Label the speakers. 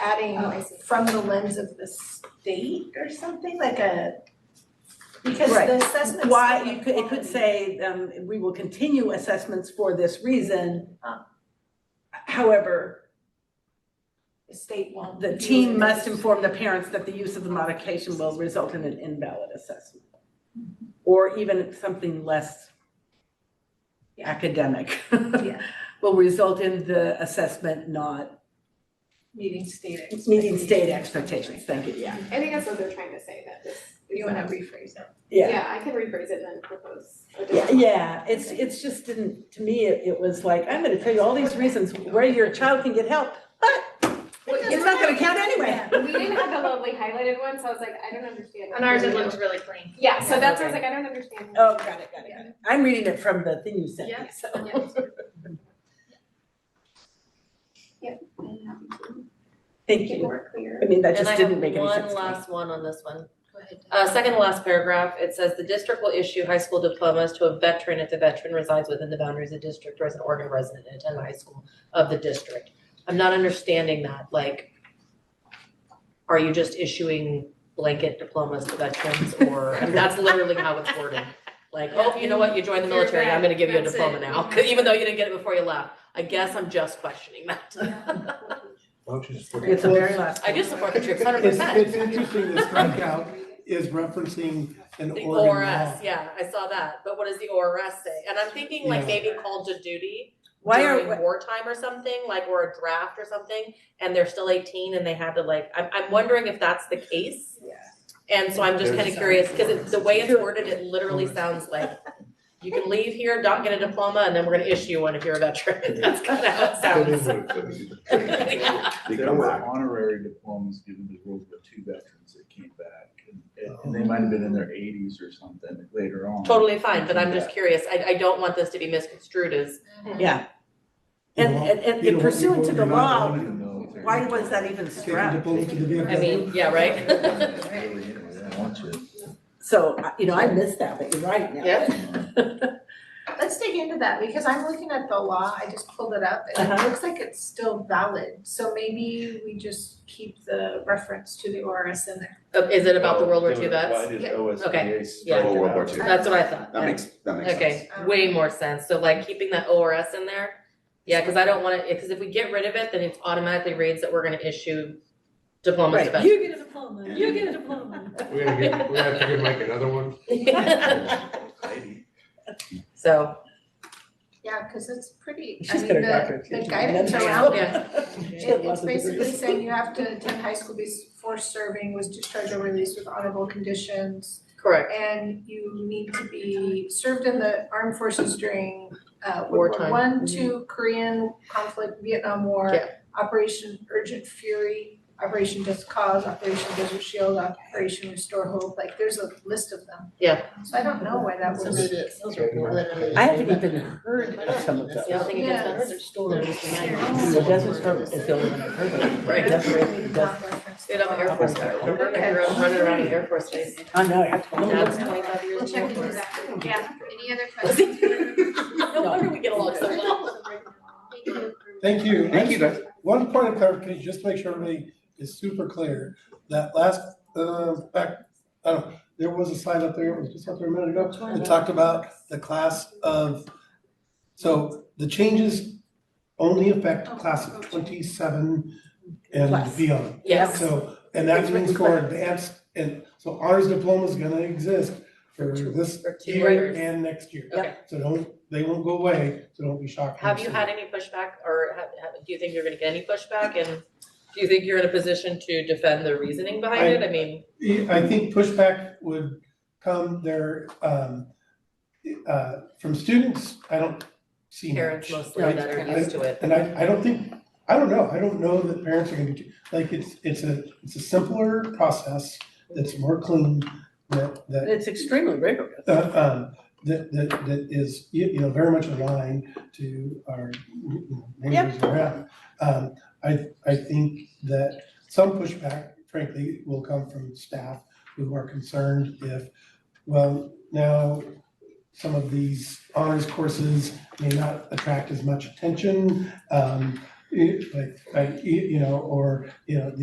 Speaker 1: adding
Speaker 2: Oh, I see.
Speaker 1: from the lens of the state or something, like a, because
Speaker 2: Right.
Speaker 1: the assessment.
Speaker 3: Why, you could, it could say, um, we will continue assessments for this reason.
Speaker 1: Ah.
Speaker 3: However,
Speaker 1: The state won't.
Speaker 3: the
Speaker 1: use
Speaker 3: team
Speaker 1: it.
Speaker 3: must inform the parents that the use of the modification will result in an invalid assessment. Or even something less academic.
Speaker 1: Yeah.
Speaker 3: Will result in the assessment not
Speaker 1: Meeting state.
Speaker 3: meeting state expectations, thank you, yeah.
Speaker 4: I think that's what they're trying to say, that this.
Speaker 1: You wanna rephrase it.
Speaker 4: Yeah, I can rephrase it and then propose a
Speaker 3: Yeah,
Speaker 4: different.
Speaker 3: yeah, it's, it's just didn't, to me, it, it was like, I'm gonna tell you all these reasons where your child can get help, but it's not gonna count anyway.
Speaker 4: We didn't have the lovely highlighted one, so I was like, I don't understand.
Speaker 2: And ours, it looked really clean.
Speaker 4: Yeah, so that's why I was like, I don't understand.
Speaker 3: Oh, got it, got it, got it. I'm reading it from the thing you sent me,
Speaker 2: Yeah.
Speaker 3: so.
Speaker 2: Yeah.
Speaker 4: I'm happy to
Speaker 3: Thank
Speaker 4: Make it
Speaker 3: you.
Speaker 4: more clear.
Speaker 3: I mean, that just didn't make any
Speaker 5: And I
Speaker 3: sense
Speaker 5: have
Speaker 3: to me.
Speaker 5: one last one on this one. Uh, second to last paragraph, it says the district will issue high school diplomas to a veteran if the veteran resides within the boundaries of the district or is an Oregon resident and attend the high school of the district. I'm not understanding that, like, are you just issuing blanket diplomas to veterans or, I mean, that's literally how it's worded. Like, oh, you know what, you joined the
Speaker 2: You're
Speaker 5: military, I'm
Speaker 2: back.
Speaker 5: gonna give you a
Speaker 2: That's it.
Speaker 5: diploma now, 'cause even though you didn't get it before you left. I guess I'm just questioning that.
Speaker 6: Don't you just look
Speaker 3: It's the
Speaker 6: at-
Speaker 3: very last.
Speaker 5: I do support the troops, hundred
Speaker 6: It's,
Speaker 5: percent.
Speaker 6: it's interesting, the strikeout is referencing an
Speaker 5: The
Speaker 6: Oregon law.
Speaker 5: ORS, yeah, I saw that, but what does the ORS say? And I'm thinking like
Speaker 6: Yeah.
Speaker 5: maybe called to duty
Speaker 3: Why
Speaker 5: during
Speaker 3: are,
Speaker 5: wartime or something, like or a draft or something, and they're still 18 and they had to like. I'm, I'm wondering if that's the case.
Speaker 3: Yeah.
Speaker 5: And so I'm just kind
Speaker 6: There's-
Speaker 5: of curious because the way it's worded, it literally sounds like you can leave here, don't get a diploma, and then we're going to issue one if you're a veteran. That's kind of how it
Speaker 6: Put in
Speaker 5: sounds.
Speaker 6: what it says.
Speaker 5: Yeah.
Speaker 7: They
Speaker 8: There
Speaker 7: come
Speaker 8: were
Speaker 7: back.
Speaker 8: honorary diplomas given to World War II veterans that came back, and, and- and they might have been in their eighties or something later on.
Speaker 5: Totally fine, but I'm just curious. I, I don't want this to be misconstrued as
Speaker 3: yeah. And,
Speaker 6: You know,
Speaker 3: and, and
Speaker 6: you know,
Speaker 3: in
Speaker 6: you
Speaker 3: pursuant to
Speaker 6: voted
Speaker 3: the
Speaker 6: not
Speaker 3: law,
Speaker 6: wanting
Speaker 8: In the military.
Speaker 3: why was that even
Speaker 6: to get
Speaker 3: struck?
Speaker 6: deposed to the
Speaker 5: I mean, yeah, right?
Speaker 8: Really, you know, they don't want you.
Speaker 3: So, uh, you know, I missed that, but you're right now.
Speaker 5: Yeah.
Speaker 1: Let's dig into that, because I'm looking at the law, I just pulled it up, and it
Speaker 3: Uh-huh.
Speaker 1: looks like it's still valid, so maybe we just keep the reference to the ORS in there.
Speaker 5: Uh, Is it about the World War
Speaker 7: They
Speaker 5: II
Speaker 7: would
Speaker 5: vets?
Speaker 7: apply to
Speaker 1: Yeah.
Speaker 7: OSBA
Speaker 5: Okay.
Speaker 7: strike
Speaker 2: Oh, World War
Speaker 7: out.
Speaker 2: II.
Speaker 5: That's what I thought.
Speaker 2: That
Speaker 5: yeah.
Speaker 2: makes, that makes sense.
Speaker 5: Okay, way more sense, so like keeping that ORS in there, yeah, cause I don't wanna, cause if we get rid of it, then it automatically reads that we're gonna issue diplomas to
Speaker 3: Right.
Speaker 5: veterans.
Speaker 2: You get a diploma, you get a diploma.
Speaker 6: We're gonna get, we're gonna have to give Mike another one.
Speaker 8: Maybe.
Speaker 5: So,
Speaker 1: Yeah, cause it's pretty, I
Speaker 3: She's
Speaker 1: mean,
Speaker 3: got her
Speaker 1: the,
Speaker 3: doctorate.
Speaker 1: the
Speaker 3: too.
Speaker 1: guidance
Speaker 5: That's-
Speaker 1: around it,
Speaker 5: yeah.
Speaker 3: She's got
Speaker 1: it- it's
Speaker 3: lots of degrees.
Speaker 1: basically saying you have to attend high school before serving, was discharged or released with honorable conditions.
Speaker 5: correct,
Speaker 1: and you need to be served in the armed forces during uh World War
Speaker 5: Wartime. Mm-hmm.
Speaker 1: One, two, Korean conflict, Vietnam War,
Speaker 5: Yeah.
Speaker 1: Operation Urgent Fury, Operation Just Cause, Operation Desert Shield, Operation Restore Hope, like there's a list of them.
Speaker 5: Yeah.
Speaker 1: So I don't know why that
Speaker 9: So
Speaker 1: was,
Speaker 9: maybe it's literally.
Speaker 3: I haven't even heard of some of those.
Speaker 5: Yeah, I think it
Speaker 1: Yeah.
Speaker 5: does
Speaker 9: There's stories behind it.
Speaker 3: The Desert Storm is the only one I've heard of.
Speaker 5: Right.
Speaker 3: That's right, the Desert-
Speaker 1: not referenced.
Speaker 5: Get on the Air Force Guy, remember,
Speaker 1: Okay.
Speaker 5: I grew up running around the Air Force Base,
Speaker 3: Oh, no, I told you.
Speaker 5: dad's twenty-five years
Speaker 4: We'll
Speaker 5: in the Air
Speaker 4: check into
Speaker 5: Force.
Speaker 4: that. Yeah, any other questions?
Speaker 5: No wonder we get along so well.
Speaker 6: Thank you.
Speaker 8: Thank you, guys.
Speaker 6: One point of clarification, just to make sure everybody is super clear, that last, uh, back, I don't, know, there was a slide up there, it was just up there a minute ago, that talked about the class of, so the changes only affect
Speaker 5: Oh,
Speaker 6: class of twenty-seven and
Speaker 3: Class.
Speaker 6: beyond.
Speaker 5: Yes,
Speaker 6: So, and that's means for advanced, and so honors diploma is gonna exist for this
Speaker 3: For two
Speaker 6: year
Speaker 3: years.
Speaker 6: and next year.
Speaker 5: Okay.
Speaker 6: So don't, they won't go away, so don't be shocked. when
Speaker 5: have you
Speaker 6: see
Speaker 5: had
Speaker 6: it.
Speaker 5: any pushback, or have, have, do you think you're gonna get any pushback, and do you think you're in a position to defend the reasoning behind it, I mean,
Speaker 6: Yeah, I think pushback would come there, um, uh, from students, I don't see much.
Speaker 5: parents mostly
Speaker 6: right?
Speaker 5: that are
Speaker 6: I-
Speaker 5: used to it.
Speaker 6: And I, I don't think, I don't know, I don't know that parents are gonna be, like, it's, it's a, it's a simpler process that's more clean, that, that
Speaker 3: It's extremely rigorous.
Speaker 6: uh, um, that, that, that is, you you know, very much aligned to our you know, neighbors around. Um, I, I think that some pushback, frankly, will come from staff who are concerned if, well, now some of these honors courses may not attract as much attention. Um, eh, like, like, you you know, or, you know,